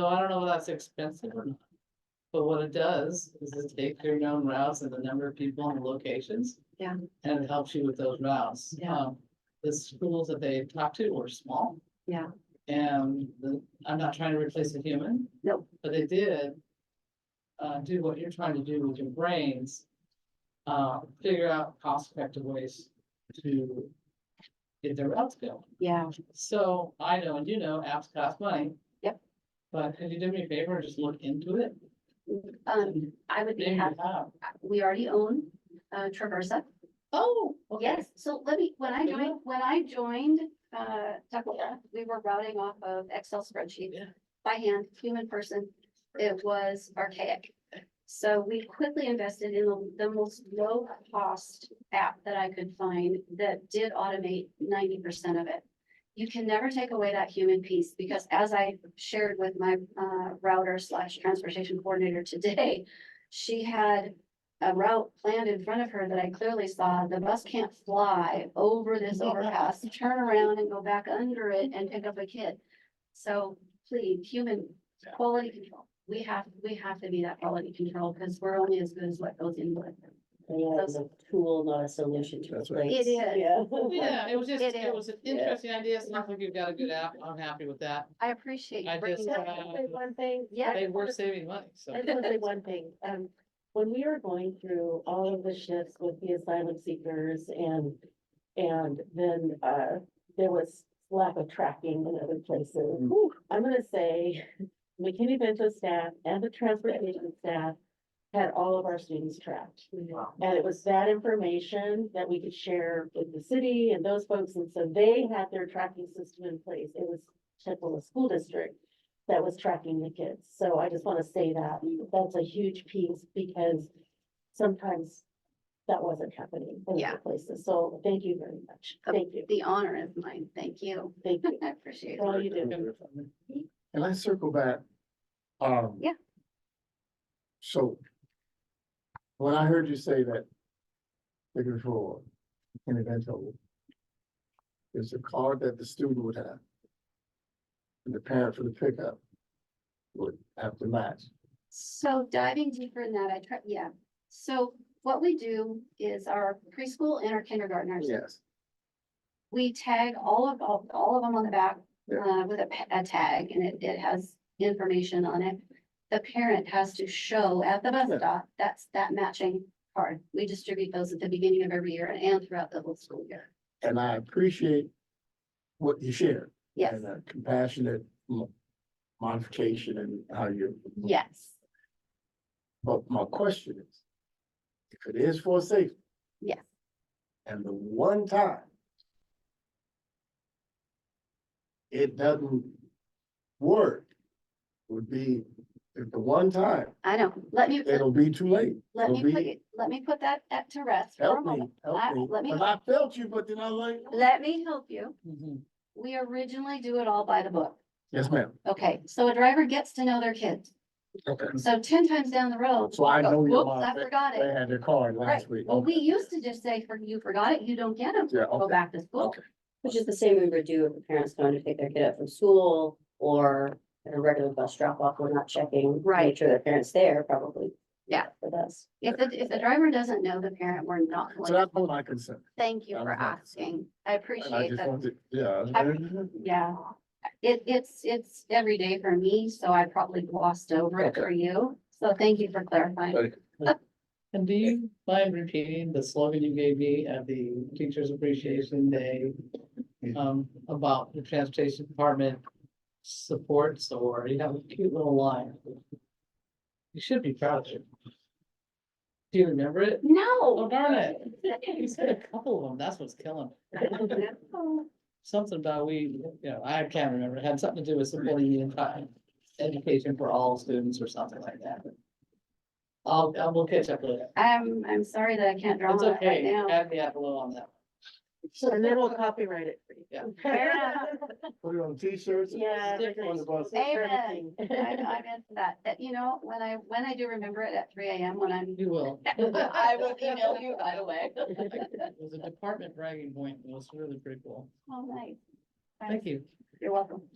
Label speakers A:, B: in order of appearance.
A: So I don't know if that's expensive or not. But what it does is it takes your known routes and the number of people and locations.
B: Yeah.
A: And it helps you with those routes.
B: Yeah.
A: Um, The schools that they talked to were small.
B: Yeah.
A: And the, I'm not trying to replace a human.
B: Nope.
A: But they did. Uh, do what you're trying to do with your brains. Uh, figure out cost effective ways to. Get their routes built.
B: Yeah, Um,
A: So I know, and you know, apps cost money.
B: Yep.
A: But could you do me a favor and just look into it?
B: um, I would be
A: Maybe you
B: happy,
A: have.
B: we already own, uh, Traversa.
A: Oh, okay.
B: Yes, so let me, when I
A: Yeah.
B: joined, when I joined, uh, Tuckahoe, we were routing off of Excel spreadsheets
A: Yeah.
B: by hand, human person. It was archaic. So we quickly invested in the- the most low-cost app that I could find that did automate ninety percent of it. You can never take away that human piece because as I shared with my, uh, router slash transportation coordinator today, she had a route planned in front of her that I clearly saw, the bus can't fly over this overpass, turn around and go back under it and pick up a kid. So please, human
A: Yeah.
B: quality control, we have, we have to be that quality control because we're only as good as what goes in with. it.
C: Yeah, it's a tool, not a solution to
D: That's right.
C: replace.
B: It is.
C: Yeah.
A: Yeah, it was just,
B: It
A: it was an
C: Yeah.
A: interesting idea. It sounds like you've got a good app. I'm happy with that.
B: I appreciate
A: I
B: you bringing
A: just,
B: that.
A: uh,
B: up.
C: Say One thing.
B: Yeah.
A: They were saving money, so.
C: I just want to say one thing, um, when we were going through all of the shifts with the asylum seekers and, and then, uh, there was lack of tracking in other places.
D: Mm-hmm.
C: Whew, I'm gonna say McKinney Bento staff and the transportation staff had all of our students tracked. And it was that information that we could share with the city and those folks, and so they had their tracking system in place. It was Chippewa School District that was tracking the kids, so I just wanna say that, that's a huge piece, because sometimes that wasn't happening in
B: Yeah.
C: other places, so thank you very much, thank you,
B: The honor is mine. Thank you.
C: thank you.
B: I appreciate it.
C: Well, you do.
D: Can I circle back? Um.
B: Yeah.
D: So. When I heard you say that. The control in Evento. Is the card that the student would have. And the parent for the pickup. Would have to match.
B: So diving deeper in that, I try, yeah. So what we do is our preschool and our kindergartners,
D: Yes.
B: we tag all of, all, all of them on the back
D: Yeah.
B: uh, with a, pa- a tag and it, it has information on it. The parent has to show at the bus
D: Yeah.
B: stop, that's that matching card. We distribute those at the beginning of every year and throughout the whole school year.
D: And I appreciate. What you shared.
B: Yes,
D: And uh, a compassionate. mo- Modification and how you.
B: yes,
D: But my question is. If it is for safety.
B: yes.
D: And the one time. It doesn't work. Would be if the one time,
B: I know. Let me,
D: it'll be too late.
B: let me,
D: it'll
B: put
D: be-
B: you- let me put that at to rest for a
D: Help me,
B: moment. I-
D: help me.
B: let me-
D: Cause I felt you, but then I was like,
B: Let me help you.
A: Mhm.
B: We originally do it all by the book.
D: yes, ma'am.
B: Okay, so a driver gets to know their kids.
D: Okay.
B: So ten times down the road.
D: So I
B: they'll go,
D: know your
B: Whoops,
D: mom,
B: I
D: they
B: forgot
D: they
B: it.
D: had their card
B: Right.
D: last week.
B: Well, we
D: Okay.
B: used to just say, for you forgot it, you don't get them.
D: Yeah,
B: Go
D: okay.
B: back to school.
D: Okay.
C: Which is the same we would do if the parents going to pick their kid up from school or at a regular bus drop off, we're not checking. to
B: Right.
C: Make sure their parents there probably.
B: Yeah.
C: For us.
B: If the, if the driver doesn't know the parent, we're not
D: So
B: going. to
D: that's what my concern.
B: Thank you for
D: Okay.
B: asking. I
D: And I
B: appreciate
D: just
B: that.
D: wanted, yeah.
B: Yeah. It, it's, it's every day for me, so I probably glossed over it
D: Okay.
B: for you. So thank you for clarifying.
D: Okay.
A: And do you mind repeating the slogan you gave me at the Teachers Appreciation Day? Um, about the transportation department supports or you have a cute little line. You should be proud of it. Do you remember it? Oh,
B: No.
A: darn it. You said a couple of them. That's what's killing me.
B: No.
A: something about we, you know, I can't remember, it had something to do with supporting the entire education for all students or something like that. I'll, I will catch up later.
B: I'm, I'm sorry that I can't draw
A: It's
B: on it right
A: okay,
B: now.
A: add me at below on that.
C: And then we'll copyright it for you.
A: Yeah.
B: Fair enough.
D: Put it on t-shirts.
C: Yeah.
D: stick it On the bus.
B: Amen. I, know, I meant that, that, you know, when I, when I do remember it at three AM when I'm,
A: You will.
B: I will email you by the way.
A: It was a department bragging point, it
B: Oh,
A: was really pretty cool,
B: All night.
A: thank you.
B: You're welcome.